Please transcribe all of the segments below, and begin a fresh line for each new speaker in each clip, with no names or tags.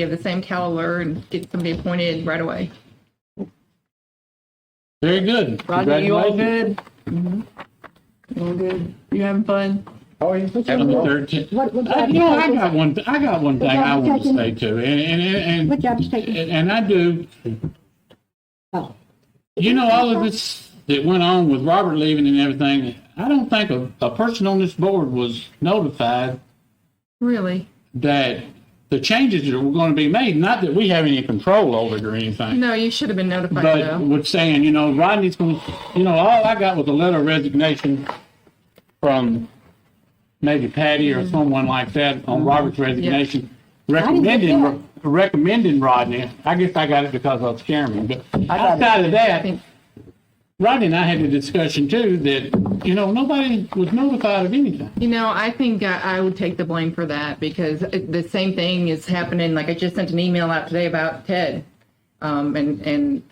give the same caliber and get somebody appointed right away.
Very good.
Rodney, you all
Congratulations.
good?
Mm-hmm.
All good? You having fun?
Oh, yeah.
Number 13.
What, what
Uh,
job?
You know, I got one, I got one thing I want to say too, and, and, and.
What job's taken?
and- And I do,
Oh,
you know, all of this that went on with Robert leaving and everything, I don't think a, a person on this board was notified
Really?
that the changes that were going to be made, not that we have any control over it or anything.
No, you should have been notified
But
though.
was saying, you know, Rodney's going, to you know, all I got was a letter of resignation from maybe Patty
Mm-hmm.
or someone like that on Robert's resignation,
didn't get
recommending, recommending Rodney. I guess I got it because I was chairman, but
got it.
outside of
I
that,
think-
Rodney and I had a discussion too that, you know, nobody was notified of anything.
You know, I think I, I would take the blame for that because it, the same thing is happening. Like I just sent an email out today about Ted, um, and and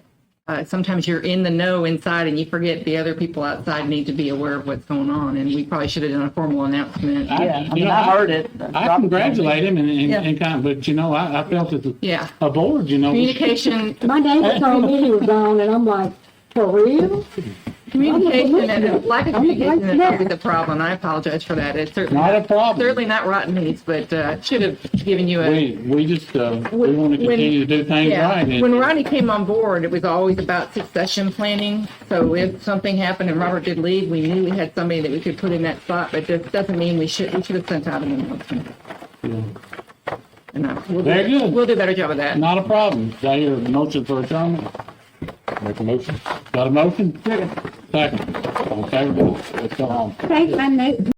uh, sometimes you're in the know inside and you forget the other people outside need to be aware of what's going on. And we probably should have done a formal announcement.
I-
Yeah, I
you
mean,
know,
I heard it.
I congratulate him and, and,
Yeah.
and kind of, but you know, I, I felt that
Yeah.
a board, you know. we should-
Communication,
my neighbor told me he was gone, and I'm like, for real?
communication, and lack of
I'm the vice
communication is probably
chair.
the problem. I apologize for that. It's certainly
Not a problem.
certainly not rotten meats, but uh, should have given you a.
We, we just, uh, we want
When-
to continue to do things
Yeah.
right. and-
When Ronnie came on board, it was always about succession planning. So if something happened and Robert did leave, we knew we had somebody that we could put in that spot. But that doesn't mean we should. We should have sent out an announcement. And uh, we'll do-
Very good.
We'll do a better job of that.
Not a problem. Do I hear a motion for adjournment? Make a motion. Got a motion? Second. Second. Okay, let's go home.
Thank my neighbor.